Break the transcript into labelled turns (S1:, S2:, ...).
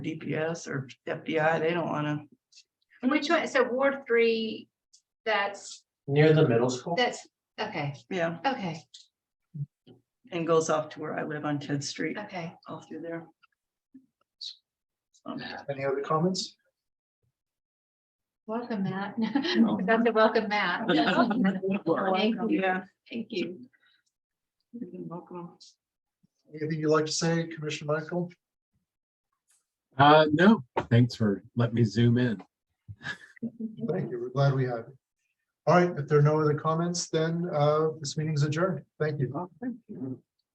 S1: DPS or FBI, they don't wanna,
S2: Which one, so Ward three, that's,
S3: Near the middle school?
S2: that's, okay,
S1: yeah,
S2: okay,
S1: and goes off to where I live on Ted Street,
S2: okay.
S1: all through there. So,
S3: Any other comments?
S2: Welcome, Matt. That's a welcome, Matt. Thank you.
S1: Yeah.
S2: Thank you.
S1: you're welcome.
S3: Anything you'd like to say, Commissioner Michael?
S4: Uh, no, thanks for letting me zoom in.
S3: Thank you. We're glad we have. you. All right, if there are no other comments, then uh, this meeting's adjourned. Thank you.
S1: Well, thank you.